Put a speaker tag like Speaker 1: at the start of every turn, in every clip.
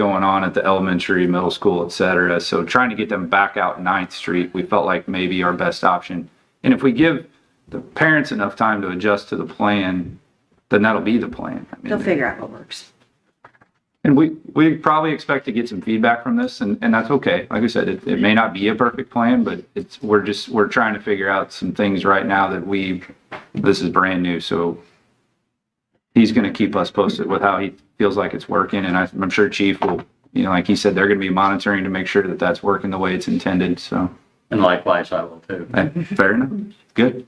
Speaker 1: going on at the elementary, middle school, et cetera. So trying to get them back out Ninth Street, we felt like maybe our best option. And if we give the parents enough time to adjust to the plan, then that'll be the plan. I mean,
Speaker 2: They'll figure out what works.
Speaker 1: And we, we probably expect to get some feedback from this and, and that's okay. Like I said, it, it may not be a perfect plan, but it's, we're just, we're trying to figure out some things right now that we, this is brand new, so he's gonna keep us posted with how he feels like it's working and I- I'm sure chief will, you know, like he said, they're gonna be monitoring to make sure that that's working the way it's intended, so,
Speaker 3: And likewise, I will too.
Speaker 1: eh, fair enough. Good.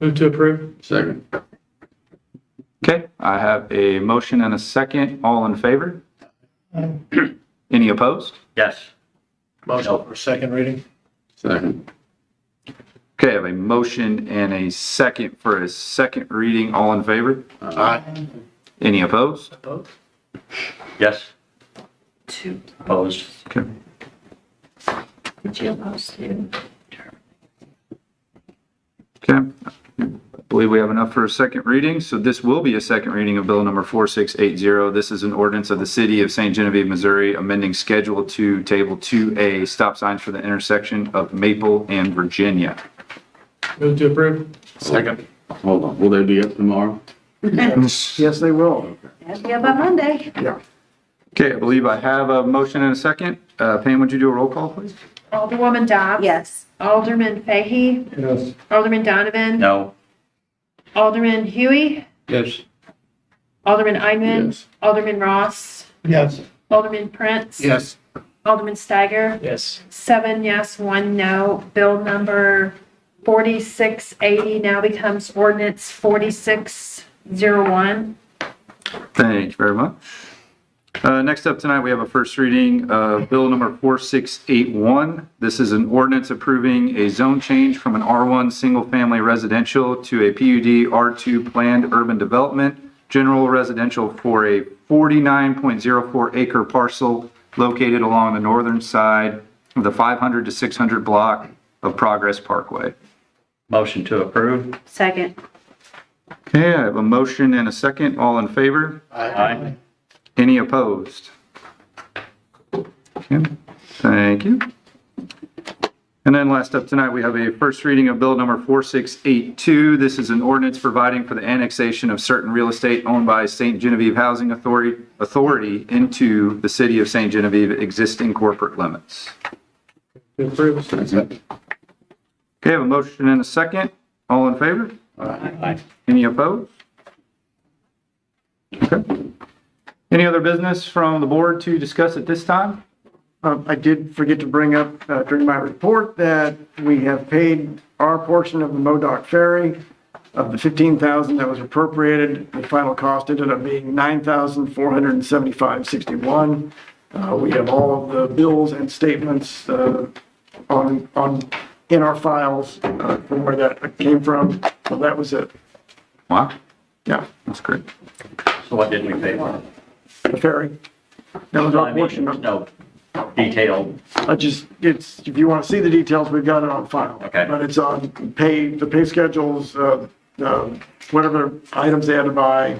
Speaker 4: Move to approve.
Speaker 3: Second.
Speaker 1: Okay, I have a motion and a second. All in favor? Any opposed?
Speaker 3: Yes.
Speaker 4: Motion for second reading.
Speaker 3: Second.
Speaker 1: Okay, I have a motion and a second for a second reading. All in favor?
Speaker 4: Aye.
Speaker 1: Any opposed?
Speaker 4: Opposed?
Speaker 3: Yes,
Speaker 2: Two.
Speaker 3: opposed.
Speaker 1: Okay.
Speaker 2: Did you oppose two?
Speaker 1: Okay. I believe we have enough for a second reading. So this will be a second reading of bill number 4680. This is an ordinance of the city of St. Genevieve, Missouri, amending Schedule 2, Table 2A, stop signs for the intersection of Maple and Virginia.
Speaker 4: Move to approve.
Speaker 3: Second. Hold on, will they be up tomorrow?
Speaker 5: Yes, they will.
Speaker 2: Yeah, by Monday.
Speaker 1: Okay, I believe I have a motion and a second. Uh, Pam, would you do a roll call, please?
Speaker 6: Alderwoman Dobbs.
Speaker 2: Yes.
Speaker 6: Alderman Fahy.
Speaker 4: Yes.
Speaker 6: Alderman Donovan.
Speaker 3: No.
Speaker 6: Alderman Huey.
Speaker 3: Yes.
Speaker 6: Alderman Einman.
Speaker 3: Yes.
Speaker 6: Alderman Ross.
Speaker 4: Yes.
Speaker 6: Alderman Prince.
Speaker 5: Yes.
Speaker 6: Alderman Steiger.
Speaker 4: Yes.
Speaker 6: Seven yes, one no. Bill number 4680 now becomes ordinance 4601.
Speaker 1: Thank you very much. Uh, Next up tonight, we have a first reading of Bill Number 4681. This is an ordinance approving a zone change from an R1 Single Family Residential to a PUD R2 Planned Urban Development General Residential for a 49.04 acre parcel located along the northern side of the 500 to 600 block of Progress Parkway.
Speaker 3: Motion to approve?
Speaker 2: Second.
Speaker 1: Okay, I have a motion and a second. All in favor?
Speaker 3: Aye.
Speaker 1: Any opposed? Okay, Thank you. And then last up tonight, we have a first reading of Bill Number 4682. This is an ordinance providing for the annexation of certain real estate owned by St. Genevieve Housing Authority Authority into the City of St. Genevieve existing corporate limits.
Speaker 4: To approve.
Speaker 1: Okay, I have a motion and a second. All in favor?
Speaker 3: Aye.
Speaker 1: Any opposed? Okay. Any other business from the board to discuss at this time?
Speaker 5: Um, I did forget to bring up uh, during my report that we have paid our portion of the MoDOC ferry of the 15,000 that was appropriated. The final cost ended up being 9,475.61. Uh, We have all of the bills and statements uh, on, on, in our files uh, from where that came from. So that was it.
Speaker 1: Wow,
Speaker 5: Yeah,
Speaker 1: that's great.
Speaker 3: So what did we pay for?
Speaker 5: the ferry. That was
Speaker 3: I
Speaker 5: our
Speaker 3: mean,
Speaker 5: portion of
Speaker 3: No detailed,
Speaker 5: I just, it's, if you want to see the details, we've got it on file.
Speaker 3: Okay.
Speaker 5: But it's on pay, the pay schedules, uh, um, whatever items they had to buy,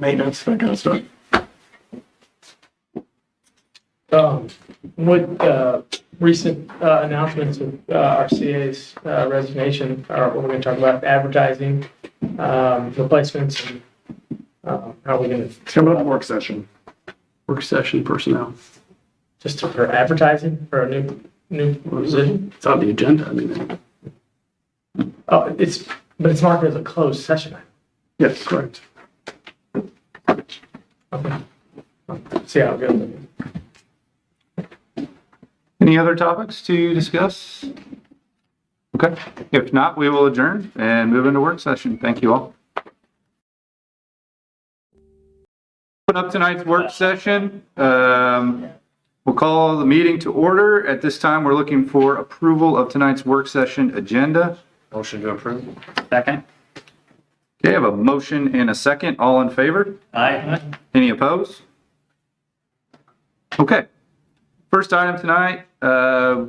Speaker 5: maintenance, that kind of stuff.
Speaker 4: Um, with, uh, recent, uh, announcements of, uh, our CA's uh, resignation, or what we're gonna talk about, advertising, um, replacements, and, um, how we gonna,
Speaker 5: It's coming up in work session.
Speaker 7: work session personnel.
Speaker 4: just for advertising for a new, new position?
Speaker 7: It's on the agenda. I mean,
Speaker 4: Oh, it's, but it's marked as a closed session.
Speaker 5: Yes, correct.
Speaker 4: Okay. See how it goes.
Speaker 1: Any other topics to discuss? Okay, if not, we will adjourn and move into work session. Thank you all. Open up tonight's work session. Um, We'll call the meeting to order. At this time, we're looking for approval of tonight's work session agenda.
Speaker 3: motion to approve? Second?
Speaker 1: Okay, I have a motion and a second. All in favor?
Speaker 3: Aye.
Speaker 1: Any opposed? Okay. First item tonight, uh,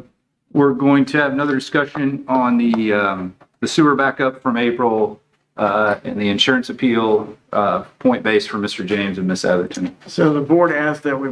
Speaker 1: we're going to have another discussion on the um, the sewer backup from April uh, and the insurance appeal uh, point base for Mr. James and Miss Atherton.
Speaker 5: So the board asked that we